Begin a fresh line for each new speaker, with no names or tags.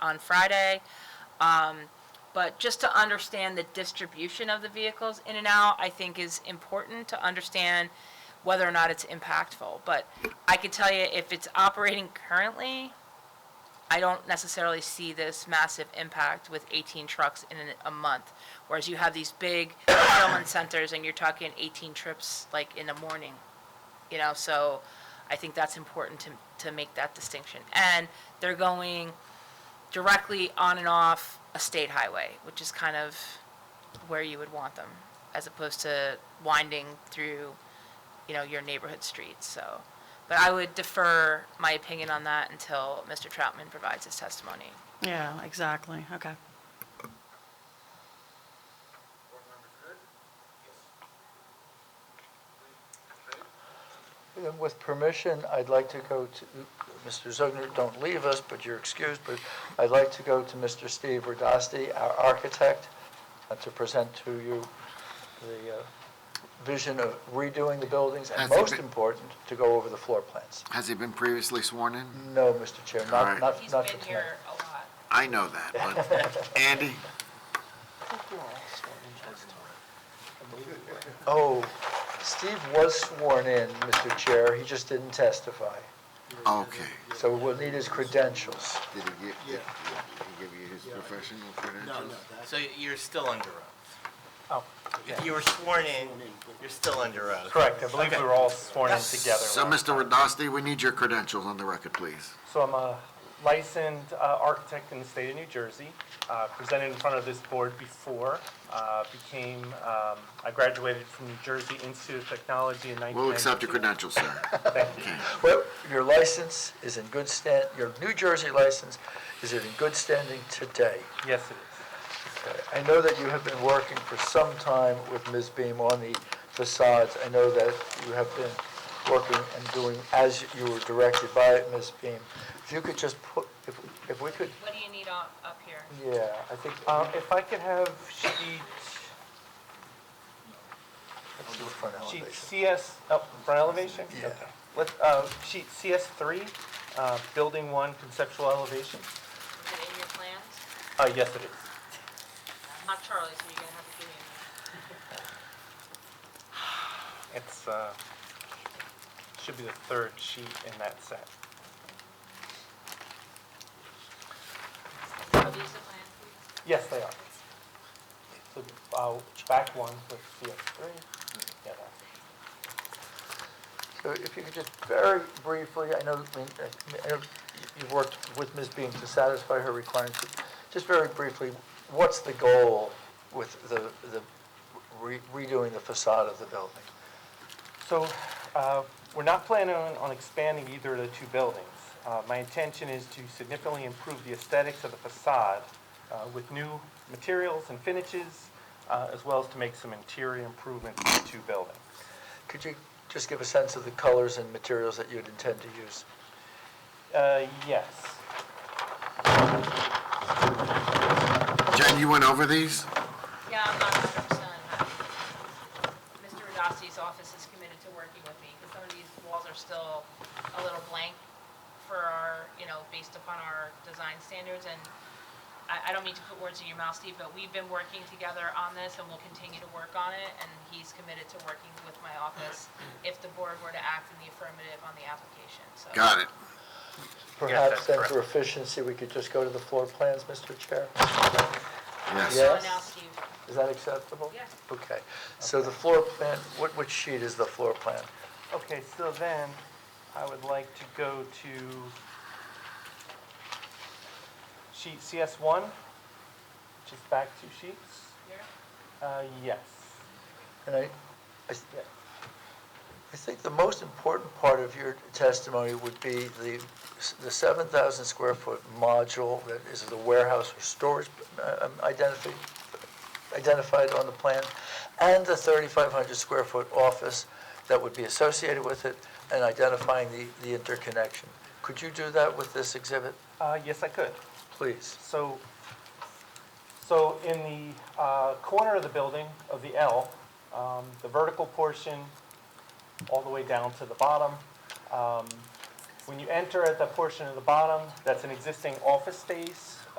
on Friday. Um, But just to understand the distribution of the vehicles in and out, I think is important to understand whether or not it's impactful. But I could tell you, if it's operating currently, I don't necessarily see this massive impact with 18 trucks in an- a month. Whereas you have these big fulfillment centers and you're talking 18 trips like in the morning, you know, so I think that's important to, to make that distinction. And they're going directly on and off a state highway, which is kind of where you would want them, as opposed to winding through, you know, your neighborhood streets, so. But I would defer my opinion on that until Mr. Troutman provides his testimony.
Yeah, exactly, okay.
And With permission, I'd like to go to, Mr. Zogner, don't leave us, but you're excused, but I'd like to go to Mr. Steve Radasti, our architect, uh, to present to you the uh, vision of redoing the buildings, and
Has he
most
been-
important, to go over the floor plans.
Has he been previously sworn in?
No, Mr. Chair,
All
not,
right.
not, not for tonight.
a lot.
I know that, but Andy,
Oh, Steve was sworn in, Mr. Chair, he just didn't testify,
okay.
so we'll need his credentials.
Did he give, did he give you his professional credentials?
So you're still under oath.
Oh,
If you were sworn in, you're still under oath.
Correct, I believe we were all sworn in together.
So, Mr. Radasti, we need your credentials on the record, please.
So I'm a licensed uh, architect in the state of New Jersey, uh, presented in front of this board before, uh, became, um, I graduated from New Jersey Institute of Technology in 1992.
We'll accept your credentials, sir.
Thank you.
Well, your license is in good stand, your New Jersey license is in good standing today.
Yes, it is.
I know that you have been working for some time with Ms. Beam on the facades. I know that you have been working and doing as you were directed by Ms. Beam. If you could just put, if, if we could,
What do you need up, up here?
yeah, I think,
Um,
I'll
If I could have sheet,
do it for an
sheet
elevation.
CS, oh, front elevation?
Yeah.
Okay. Let's, uh, sheet CS three, uh, building one, conceptual elevation.
Is it in your plans?
Uh, Yes, it is.
Not Charlie, so you're gonna have to give me a
It's, uh, should be the third sheet in that set.
minute. Are these the plans?
Yes, they are. So, uh, back one with CS3. Yeah, that's-
So if you could just very briefly, I know, I mean, I know you've worked with Ms. Beam to satisfy her requirements. Just very briefly, what's the goal with the, the re- redoing the facade of the building?
So, uh, we're not planning on, on expanding either of the two buildings. Uh, my intention is to significantly improve the aesthetics of the facade, uh, with new materials and finishes, uh, as well as to make some interior improvements to the two buildings.
Could you just give a sense of the colors and materials that you'd intend to use?
Uh, yes.
Jen, you went over these?
Yeah, I'm not hundred percent happy. Mr. Radasti's office is committed to working with me, because some of these walls are still a little blank for our, you know, based upon our design standards, and I, I don't mean to put words in your mouth, Steve, but we've been working together on this, and we'll continue to work on it, and he's committed to working with my office if the board were to act in the affirmative on the application, so.
Got it.
Perhaps
that's
then
correct.
for efficiency, we could just go to the floor plans, Mr. Chair?
Yes.
Yeah.
So
Yes.
now, Steve,
Is that acceptable?
Yes.
Okay, so the floor plan, what, which sheet is the floor plan?
Okay, so then, I would like to go to sheet CS1, which is back two sheets.
here,
Uh, Yes.
And I, I s- I think the most important part of your testimony would be the, s- the 7,000 square foot module that is the warehouse or storage uh, um, identifi- identified on the plan, and the 3,500 square foot office that would be associated with it, and identifying the, the interconnection. Could you do that with this exhibit,
Uh, Yes, I could.
please?
So, so in the uh, corner of the building, of the L, um, the vertical portion, all the way down to the bottom, um, When you enter at the portion at the bottom, that's an existing office space.